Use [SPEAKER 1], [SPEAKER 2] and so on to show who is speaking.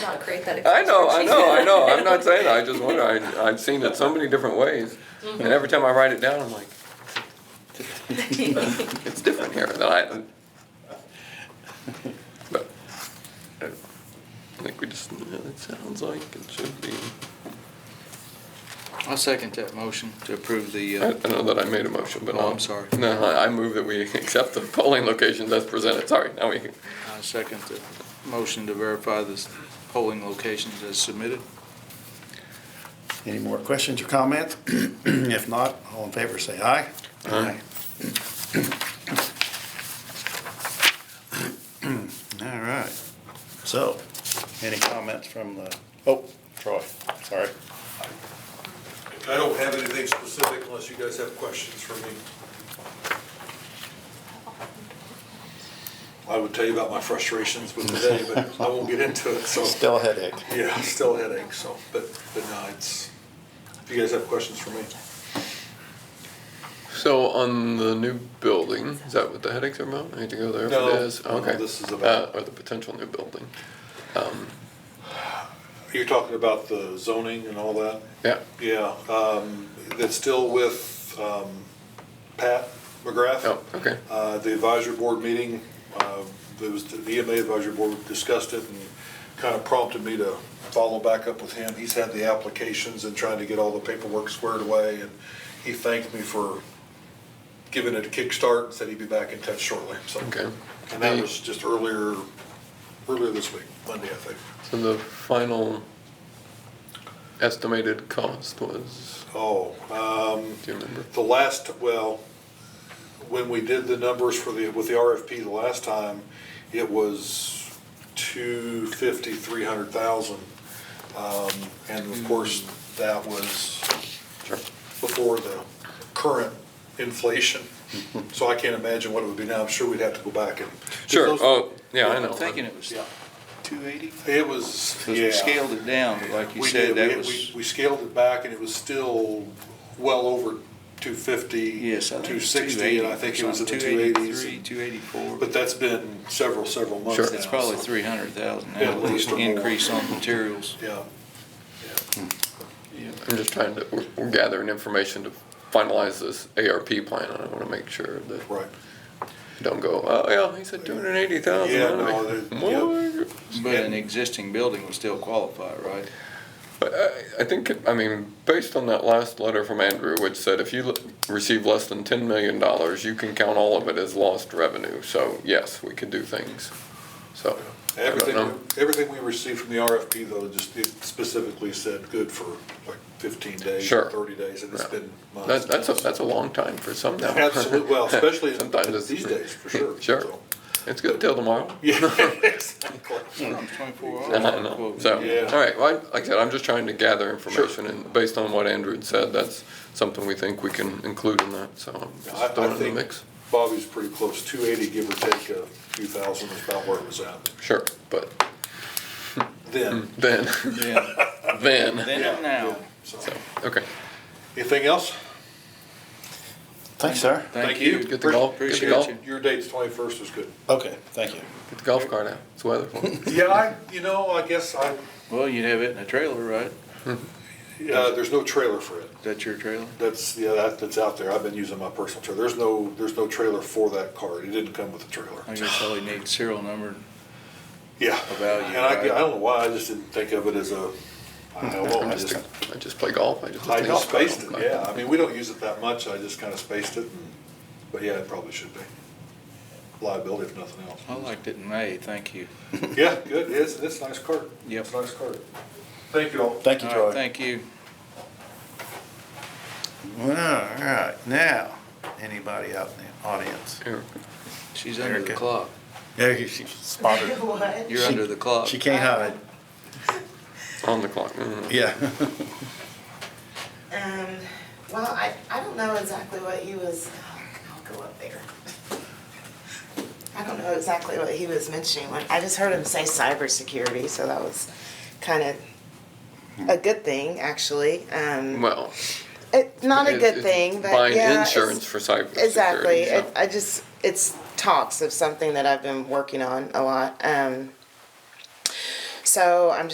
[SPEAKER 1] not create that.
[SPEAKER 2] I know, I know, I know. I'm not
[SPEAKER 1] exaggeration.
[SPEAKER 2] saying that. I just wonder. I, I've seen it so many different ways, and every time I write it down, I'm like, it's different here. And I, but I think we just. It sounds like it should be.
[SPEAKER 3] I'll second that motion to approve the,
[SPEAKER 2] I
[SPEAKER 3] uh,
[SPEAKER 2] don't know that I made a motion, but
[SPEAKER 3] Oh,
[SPEAKER 2] I'll-
[SPEAKER 3] I'm sorry.
[SPEAKER 2] No, I I move that we accept the polling locations as presented. Sorry, now we.
[SPEAKER 3] I second the motion to verify the polling locations as submitted.
[SPEAKER 4] Any more questions or comments? If not, all in favor, say aye.
[SPEAKER 2] Aye.
[SPEAKER 4] All right. So, any comments from the, oh, Troy, sorry.
[SPEAKER 5] I don't have anything specific unless you guys have questions for me. I would tell you about my frustrations with the day, but I won't get into it, so,
[SPEAKER 4] Still a headache.
[SPEAKER 5] yeah, still headaches, so, but, but no, it's, if you guys have questions for me.
[SPEAKER 2] So on the new building, is that what the headaches are about? I need to go there if
[SPEAKER 5] No,
[SPEAKER 2] it is?
[SPEAKER 5] no,
[SPEAKER 2] Okay.
[SPEAKER 5] this is about-
[SPEAKER 2] Uh, Or the potential new building. Um,
[SPEAKER 5] You're talking about the zoning and all that?
[SPEAKER 2] Yeah,
[SPEAKER 5] Yeah, um, that's still with, um, Pat McGrath.
[SPEAKER 2] oh, okay.
[SPEAKER 5] Uh, The advisory board meeting, uh, there was, the EMA advisory board discussed it and kind of prompted me to follow back up with him. He's had the applications and trying to get all the paperwork squared away, and he thanked me for giving it a kickstart and said he'd be back in touch shortly, so.
[SPEAKER 2] Okay.
[SPEAKER 5] And that was just earlier, earlier this week, Monday, I think.
[SPEAKER 2] So the final estimated cost was,
[SPEAKER 5] Oh, um,
[SPEAKER 2] do you remember?
[SPEAKER 5] The last, well, when we did the numbers for the, with the RFP the last time, it was two fifty, three hundred thousand. Um, and of course,
[SPEAKER 3] Hmm.
[SPEAKER 5] that was
[SPEAKER 2] Sure.
[SPEAKER 5] before the current inflation. So I can't imagine what it would be now. I'm sure we'd have to go back and.
[SPEAKER 2] Sure,
[SPEAKER 5] Those-
[SPEAKER 2] oh, yeah, I
[SPEAKER 3] I'm
[SPEAKER 2] know.
[SPEAKER 3] thinking it was
[SPEAKER 5] Yeah.
[SPEAKER 3] 280.
[SPEAKER 5] It was,
[SPEAKER 3] So
[SPEAKER 5] yeah.
[SPEAKER 3] we scaled it down, but like you
[SPEAKER 5] We
[SPEAKER 3] said,
[SPEAKER 5] did.
[SPEAKER 3] that
[SPEAKER 5] We-
[SPEAKER 3] was,
[SPEAKER 5] we- We scaled it back and it was still well over two fifty.
[SPEAKER 3] yes, I think it was
[SPEAKER 5] 260,
[SPEAKER 3] 280.
[SPEAKER 5] and I think it was in the two eighties.
[SPEAKER 3] 283, 284.
[SPEAKER 5] But that's been several, several months
[SPEAKER 2] Sure.
[SPEAKER 5] now,
[SPEAKER 3] It's probably
[SPEAKER 5] so-
[SPEAKER 3] 300,000
[SPEAKER 5] Yeah,
[SPEAKER 3] now,
[SPEAKER 5] at least or more.
[SPEAKER 3] increase on materials.
[SPEAKER 5] Yeah,
[SPEAKER 2] I'm just trying to, we're- we're gathering information to finalize this ARP plan. and I want to make sure that
[SPEAKER 5] right.
[SPEAKER 2] don't go, oh, yeah, he said two hundred and eighty thousand.
[SPEAKER 5] Yeah, no, that- yeah.
[SPEAKER 3] But an existing building would still qualify, right?
[SPEAKER 2] But I, I think, I mean, based on that last letter from Andrew, which said if you l- receive less than ten million dollars, you can count all of it as lost revenue. So yes, we could do things. So I don't
[SPEAKER 5] Everything,
[SPEAKER 2] know.
[SPEAKER 5] everything we received from the RFP though, just it specifically said good for like fifteen days,
[SPEAKER 2] Sure.
[SPEAKER 5] thirty days, and it's
[SPEAKER 2] Yeah.
[SPEAKER 5] been months.
[SPEAKER 2] That, that's a
[SPEAKER 5] now, so-
[SPEAKER 2] that's a long time for some now.
[SPEAKER 5] Absolute- well, especially in-
[SPEAKER 2] Sometimes it's-
[SPEAKER 5] these days, for sure,
[SPEAKER 2] Sure,
[SPEAKER 5] so.
[SPEAKER 2] it's good till tomorrow.
[SPEAKER 5] Yeah, exactly.
[SPEAKER 3] It's 24
[SPEAKER 2] I
[SPEAKER 3] hours.
[SPEAKER 2] don't know. So,
[SPEAKER 5] Yeah.
[SPEAKER 2] all right, well, I- like I said, I'm just trying to gather information, and based on what Andrew had said, that's something we think we can include in that. So I'm
[SPEAKER 5] I- I
[SPEAKER 2] just throwing it in
[SPEAKER 5] think-
[SPEAKER 2] the mix.
[SPEAKER 5] Bobby's pretty close, two eighty, give or take a few thousand is about where it was at
[SPEAKER 2] Sure, but
[SPEAKER 5] then.
[SPEAKER 2] then
[SPEAKER 3] Yeah.
[SPEAKER 2] then.
[SPEAKER 3] Then
[SPEAKER 5] Yeah,
[SPEAKER 3] and now.
[SPEAKER 5] yeah, so.
[SPEAKER 2] Okay.
[SPEAKER 5] Anything else?
[SPEAKER 4] Thanks, sir.
[SPEAKER 5] Thank you.
[SPEAKER 2] Get the golf, get the
[SPEAKER 3] Appreciate
[SPEAKER 2] golf,
[SPEAKER 3] you.
[SPEAKER 5] Your date's twenty-first is good.
[SPEAKER 4] Okay, thank you.
[SPEAKER 2] get the golf cart out. It's weather for it.
[SPEAKER 5] Yeah, I, you know, I guess I, uh,
[SPEAKER 3] Well, you'd have it in a trailer, right?
[SPEAKER 5] Uh, there's no trailer for it.
[SPEAKER 3] Is that your trailer?
[SPEAKER 5] That's, yeah, that, that's out there. I've been using my personal trailer. There's no, there's no trailer for that card. It didn't come with a trailer.
[SPEAKER 3] I guess all you need serial number.
[SPEAKER 5] Yeah.
[SPEAKER 3] A value,
[SPEAKER 5] And I, I
[SPEAKER 3] right?
[SPEAKER 5] don't know why, I just didn't think of it as a, I don't know, I
[SPEAKER 2] I
[SPEAKER 5] just,
[SPEAKER 2] just, I just play golf. I just. play
[SPEAKER 5] I just
[SPEAKER 2] golf cart.
[SPEAKER 5] spaced it, yeah. I mean, we don't use it that much. I just kind of spaced it. and- But yeah, it probably should be. Liability if nothing else.
[SPEAKER 3] I liked it in May, thank you.
[SPEAKER 5] Yeah, good. It's, it's a nice card.
[SPEAKER 3] Yep.
[SPEAKER 5] It's a nice card. Thank you all.
[SPEAKER 4] Thank you,
[SPEAKER 3] All right,
[SPEAKER 4] Troy.
[SPEAKER 3] Thank you.
[SPEAKER 4] All right, now, anybody out in the audience?
[SPEAKER 2] Here.
[SPEAKER 3] She's under the
[SPEAKER 4] Erica.
[SPEAKER 3] clock.
[SPEAKER 4] Yeah, she- she spotted.
[SPEAKER 1] What?
[SPEAKER 3] You're
[SPEAKER 4] She-
[SPEAKER 3] under the clock.
[SPEAKER 4] She can't hide,
[SPEAKER 2] On the clock. Mm.
[SPEAKER 4] yeah.
[SPEAKER 6] Um, well, I, I don't know exactly what he was, I'll go up there. I don't know exactly what he was mentioning, Like, I just heard him say cybersecurity, so that was kind of a good thing, actually, um,
[SPEAKER 2] Hmm. Well.
[SPEAKER 6] it, not a
[SPEAKER 2] it's-
[SPEAKER 6] good
[SPEAKER 2] it's
[SPEAKER 6] thing, but yeah.
[SPEAKER 2] Buying
[SPEAKER 6] it's-
[SPEAKER 2] insurance for cyber.
[SPEAKER 6] Exactly,
[SPEAKER 2] security,
[SPEAKER 6] it, I just, it's talks of something that I've been working on a lot, um, so I'm